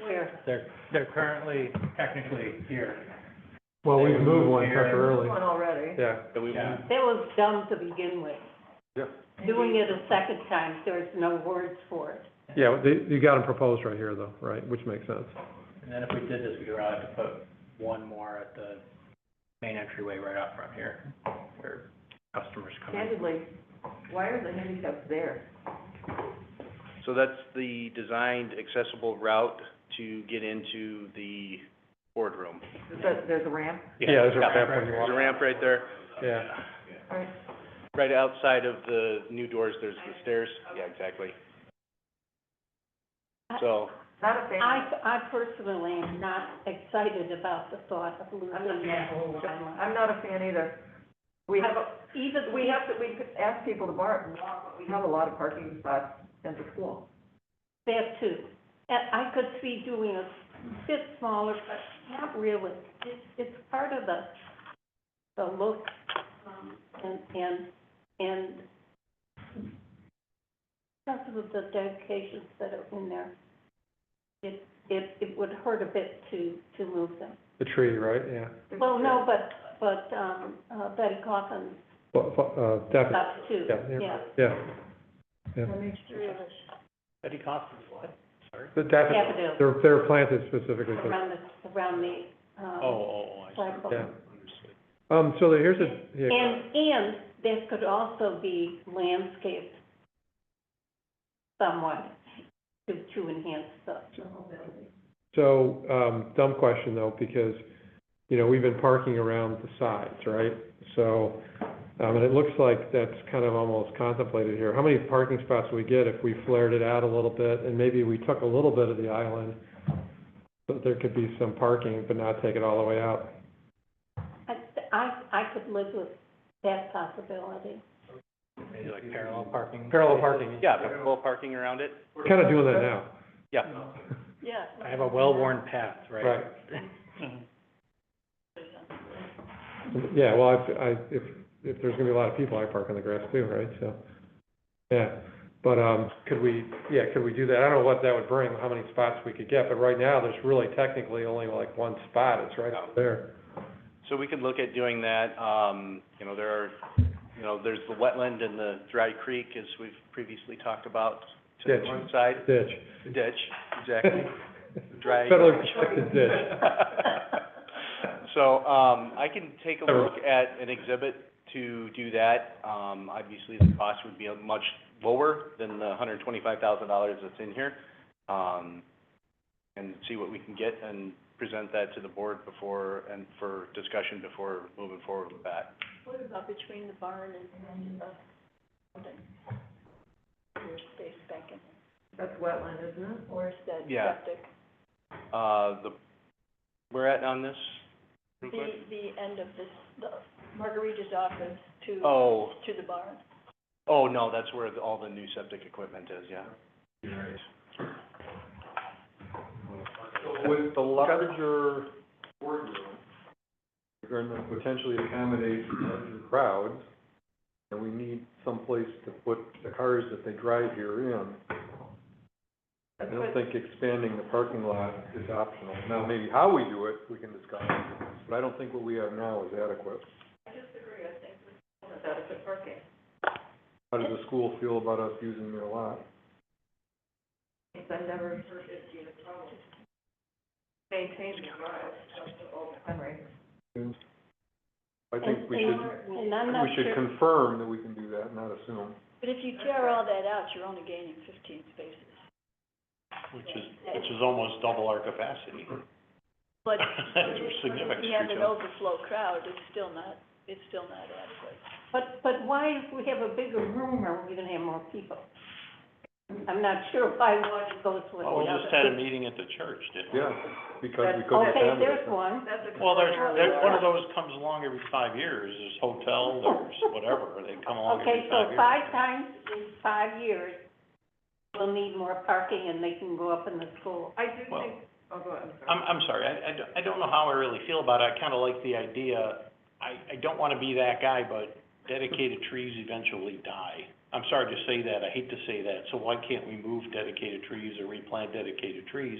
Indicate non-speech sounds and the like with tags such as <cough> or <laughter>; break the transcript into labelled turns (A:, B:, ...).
A: Where?
B: They're, they're currently technically here.
C: Well, we've
B: They
C: moved
B: moved
C: one
B: here.
C: temporarily,
A: One already.
C: yeah.
D: That we
B: Yeah.
D: moved,
A: That was dumb to begin with.
C: Yeah.
A: Doing it a second time, there's no words for it.
C: Yeah, they, you got them proposed right here though, right, which makes sense.
B: And then if we did this, we would have to put one more at the main entryway right out front here, where customers come in.
E: Candidly, why are the handicaps there?
D: so that's the designed accessible route to get into the boardroom.
E: Is that, there's a ramp?
C: Yeah, there's a
D: Yeah.
C: ramp when you
D: There's a
C: walk,
D: ramp right there.
C: yeah.
E: Alright.
D: Right outside of the new doors, there's the stairs. Yeah, exactly. So,
E: Not a fan.
A: I, I personally am not excited about the thought of losing that whole line.
E: I'm not a fan either. We have, a-
A: Even,
E: we have to, we could ask people to bar, walk, but we have a lot of parking spots at the school.
A: that too. And I could see doing a bit smaller, but not really. It's, it's part of the, the look um, and, and, and because of the dedications that are in there, it, it, it would hurt a bit to, to move them.
C: The tree, right, yeah.
E: There's-
A: Well, no, but, but, um, uh, Betty Coffin
C: But, uh, definitely,
A: stopped too,
C: yeah,
A: yeah.
C: yeah, yeah. Yeah.
B: Betty Coffin, what? Sorry?
C: The daffodils,
A: Daffodils
C: they're, they're planted specifically for
A: around the, around the,
B: Oh,
A: uh,
B: oh, oh, I see.
A: flagpole.
C: Yeah. Um, so the- here's a, yeah,
A: And, and that could also be landscaped somewhat to, to enhance the,
C: so, um, dumb question though, because, you know, we've been parking around the sides, right? So, um, and it looks like that's kind of almost contemplated here. How many parking spots would we get if we flared it out a little bit and maybe we took a little bit of the island? But there could be some parking, but not take it all the way out.
A: I, I, I could live with that possibility.
B: Maybe like parallel parking.
C: Parallel parking.
D: yeah, full parking around it.
C: We're Kind of doing that now.
D: Yeah.
A: Yeah.
B: I have a well-worn path, right?
C: Yeah, well, if, I, if, if there's gonna be a lot of people, I park on the grass too, right, so, yeah. But, um, could we, yeah, could we do that? I don't know what that would bring, how many spots we could get, but right now, there's really technically only like one spot, it's right out there.
D: So we could look at doing that, um, you know, there are, you know, there's the wetland and the dry creek, as we've previously talked about, to the
C: Ditch.
D: one side,
C: Ditch.
D: the ditch, exactly, dry.
C: Federally protected ditch.
D: <laughs> So, um, I can take a look at an exhibit to do that. Um, obviously, the cost would be much lower than the hundred and twenty-five thousand dollars that's in here. Um, and see what we can get and present that to the board before, and for discussion before moving forward with that.
F: What about between the barn and the building? Your space back in,
E: That's wetland, isn't it?
F: where's that
D: Yeah.
F: septic?
D: Uh, the, we're at on this? real
F: The,
D: quick?
F: the end of this, the Margarita's office to,
D: Oh,
F: to the barn.
D: oh, no, that's where the- all the new septic equipment is, yeah.
G: With the larger boardroom, you're gonna potentially accommodate larger crowds, and we need someplace to put the cars that they drive here in. I
E: That's
G: don't
E: what-
G: think expanding the parking lot is optional. Now, maybe how we do it, we can discuss, but I don't think what we have now is adequate.
E: that's adequate parking.
G: How does the school feel about us using their lot?
E: It's I've never heard it be a problem. Maintain the drive, just to Old Henry.
G: I think we
A: And-
G: should,
A: And I'm not
G: we should
A: sure,
G: confirm that we can do that, not assume.
F: But if you tear all that out, you're only gaining fifteen spaces.
H: which is, which is almost double our capacity.
D: <laughs>
F: But
H: It's significant.
F: you have an overflow crowd, it's still not, it's still not adequate.
A: but, but why, if we have a bigger room, are we gonna have more people? I'm not sure why one goes with the
H: Well, we just
A: other.
H: had a meeting at the church, didn't we?
G: Yeah, because we couldn't
A: Okay,
G: accommodate
A: there's
G: them.
A: one.
E: That's a.
H: Well, there's, there, one of those comes along every five years, there's hotel, there's whatever, they come along
A: Okay,
H: every five
A: so
H: years.
A: five times in five years, we'll need more parking and they can go up in the school.
E: I do
H: Well-
E: think, oh, go ahead,
H: I'm, I'm sorry, I, I don't, I don't know how I really feel about it, I kinda like the idea, I, I don't wanna be that guy, but dedicated trees eventually die. I'm sorry to say that, I hate to say that, so why can't we move dedicated trees or replant dedicated trees?